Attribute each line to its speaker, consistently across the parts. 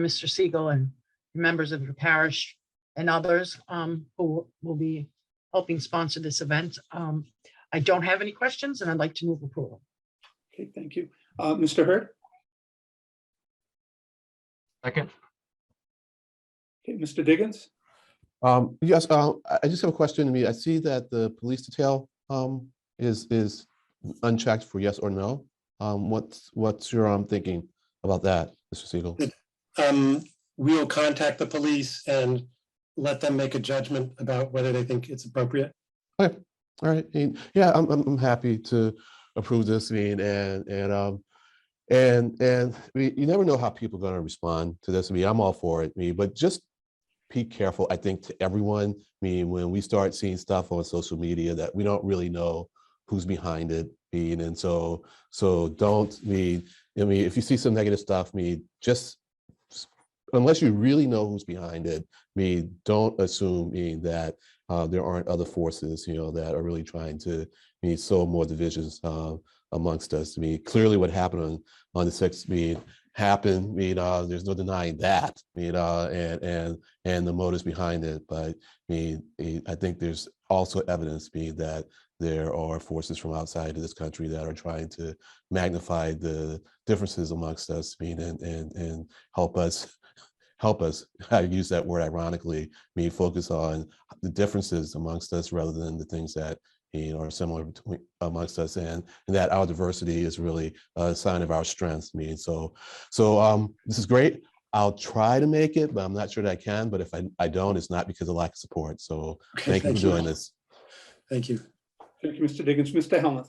Speaker 1: Mr. Siegel and members of the parish and others um, who will be helping sponsor this event. Um, I don't have any questions and I'd like to move approval.
Speaker 2: Okay, thank you. Uh, Mr. Hurd?
Speaker 3: Second,
Speaker 2: Okay, Mr. Diggins?
Speaker 4: Um, yes, uh, I I just have a question. I mean, I see that the police detail, um, is, is unchecked for yes or no. Um, what's, what's your, um, thinking about that, Mr. Siegel?
Speaker 5: um, we will contact the police and let them make a judgment about whether they think it's appropriate.
Speaker 4: All right, and yeah, I'm, I'm, I'm happy to approve this meeting and, and, um, and, and we, you never know how people are gonna respond to this. I mean, I'm all for it, me, but just be careful, I think, to everyone. I mean, when we start seeing stuff on social media that we don't really know who's behind it, mean, and so, so don't, I mean, I mean, if you see some negative stuff, I mean, just s- unless you really know who's behind it, I mean, don't assume, I mean, that uh, there aren't other forces, you know, that are really trying to I mean, sow more divisions uh, amongst us. I mean, clearly what happened on, on the sixth, I mean, happened, I mean, uh, there's no denying that, I mean, uh, and, and, and the motives behind it. But I mean, eh, I think there's also evidence being that there are forces from outside of this country that are trying to magnify the differences amongst us, I mean, and, and, and help us, help us, I use that word ironically, I mean, focus on the differences amongst us rather than the things that you know, are similar between amongst us and, and that our diversity is really a sign of our strengths. I mean, so so um this is great. I'll try to make it, but I'm not sure that I can. But if I, I don't, it's not because of lack of support. So
Speaker 5: Okay,
Speaker 4: thank you for doing this.
Speaker 5: Thank you.
Speaker 2: Thank you, Mr. Diggins. Mr. Helmuth?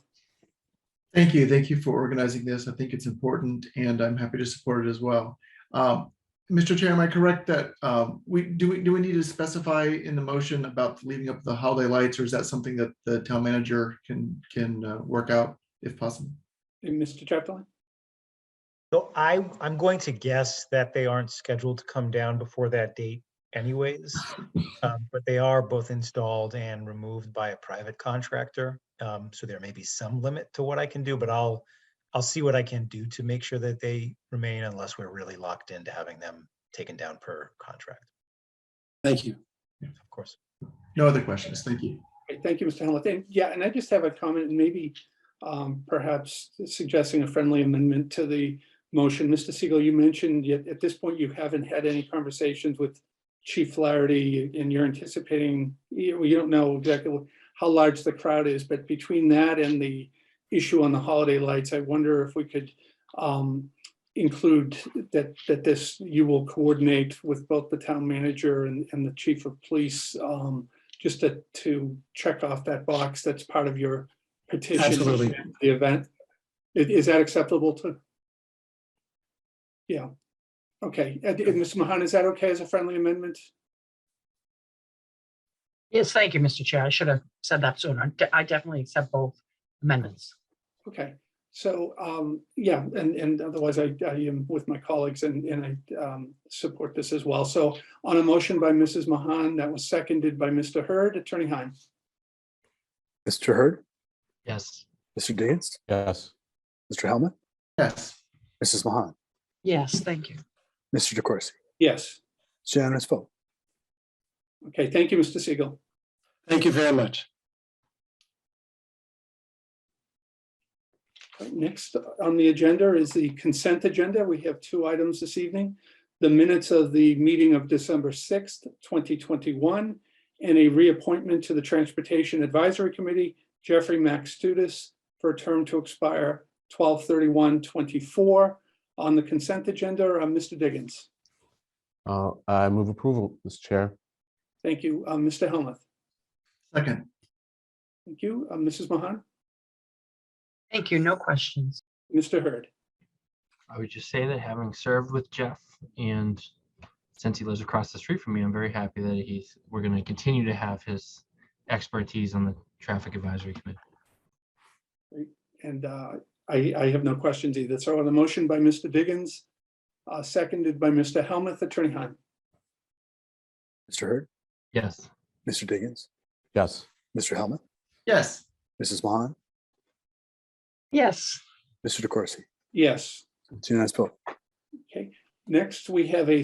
Speaker 6: Thank you. Thank you for organizing this. I think it's important and I'm happy to support it as well. Um, Mr. Chair, am I correct that um, we, do we, do we need to specify in the motion about leaving up the holiday lights or is that something that the town manager can, can uh, work out if possible?
Speaker 2: And Mr. Chaplin?
Speaker 7: So I, I'm going to guess that they aren't scheduled to come down before that date anyways. um, But they are both installed and removed by a private contractor. um, So there may be some limit to what I can do, but I'll, I'll see what I can do to make sure that they remain unless we're really locked into having them taken down per contract,
Speaker 5: Thank you.
Speaker 7: of course.
Speaker 6: No other questions. Thank you.
Speaker 2: Okay, Thank you, Mr. Helmuth. And yeah, and I just have a comment and maybe um, perhaps suggesting a friendly amendment to the motion. Mr. Siegel, you mentioned yet at this point, you haven't had any conversations with Chief Flaherty and you're anticipating, you well, you don't know exactly how large the crowd is, but between that and the issue on the holiday lights, I wonder if we could um, include that, that this, you will coordinate with both the town manager and, and the chief of police um, just to, to check off that box that's part of your petition.
Speaker 5: Absolutely.
Speaker 2: The event. Is, is that acceptable to? Yeah. Okay. And, and Mr. Mahan, is that okay as a friendly amendment?
Speaker 1: Yes, thank you, Mr. Chair. I should have said that sooner. De- I definitely accept both amendments.
Speaker 2: Okay, so, um, yeah, and, and otherwise I, I am with my colleagues and, and I, um, support this as well. So on a motion by Mrs. Mahan, that was seconded by Mr. Hurd, Attorney Heim.
Speaker 8: Mr. Hurd,
Speaker 3: yes,
Speaker 8: Mr. Diggins,
Speaker 4: Yes.
Speaker 8: Mr. Helmut,
Speaker 6: Yes.
Speaker 8: Mrs. Mahan,
Speaker 1: Yes, thank you.
Speaker 8: Mr. DeCoursey.
Speaker 2: Yes,
Speaker 8: It's unanimous vote.
Speaker 2: okay, thank you, Mr. Siegel.
Speaker 5: Thank you very much.
Speaker 2: Right, Next on the agenda is the consent agenda. We have two items this evening. The minutes of the meeting of December sixth, twenty twenty-one, and a reappointment to the Transportation Advisory Committee, Jeffrey Max Studis, for a term to expire 24 On the consent agenda, uh, Mr. Diggins.
Speaker 4: Uh, I move approval, Mr. Chair.
Speaker 2: Thank you, Uh, Mr. Helmuth.
Speaker 6: Second.
Speaker 2: Thank you, Uh, Mrs. Mahan,
Speaker 1: Thank you. No questions.
Speaker 2: Mr. Hurd.
Speaker 3: I would just say that having served with Jeff and since he lives across the street from me, I'm very happy that he's, we're gonna continue to have his expertise on the traffic advisory committee.
Speaker 2: And uh, I, I have no questions either. So on the motion by Mr. Diggins, uh, seconded by Mr. Helmuth, Attorney Heim.
Speaker 8: Mr. Hurd,
Speaker 3: Yes,
Speaker 8: Mr. Diggins,
Speaker 4: Yes.
Speaker 8: Mr. Helmut,
Speaker 6: Yes.
Speaker 8: Mrs. Mahan,
Speaker 1: Yes,
Speaker 8: Mr. DeCoursey.
Speaker 2: Yes,
Speaker 8: It's unanimous vote.
Speaker 2: okay. Next, we have a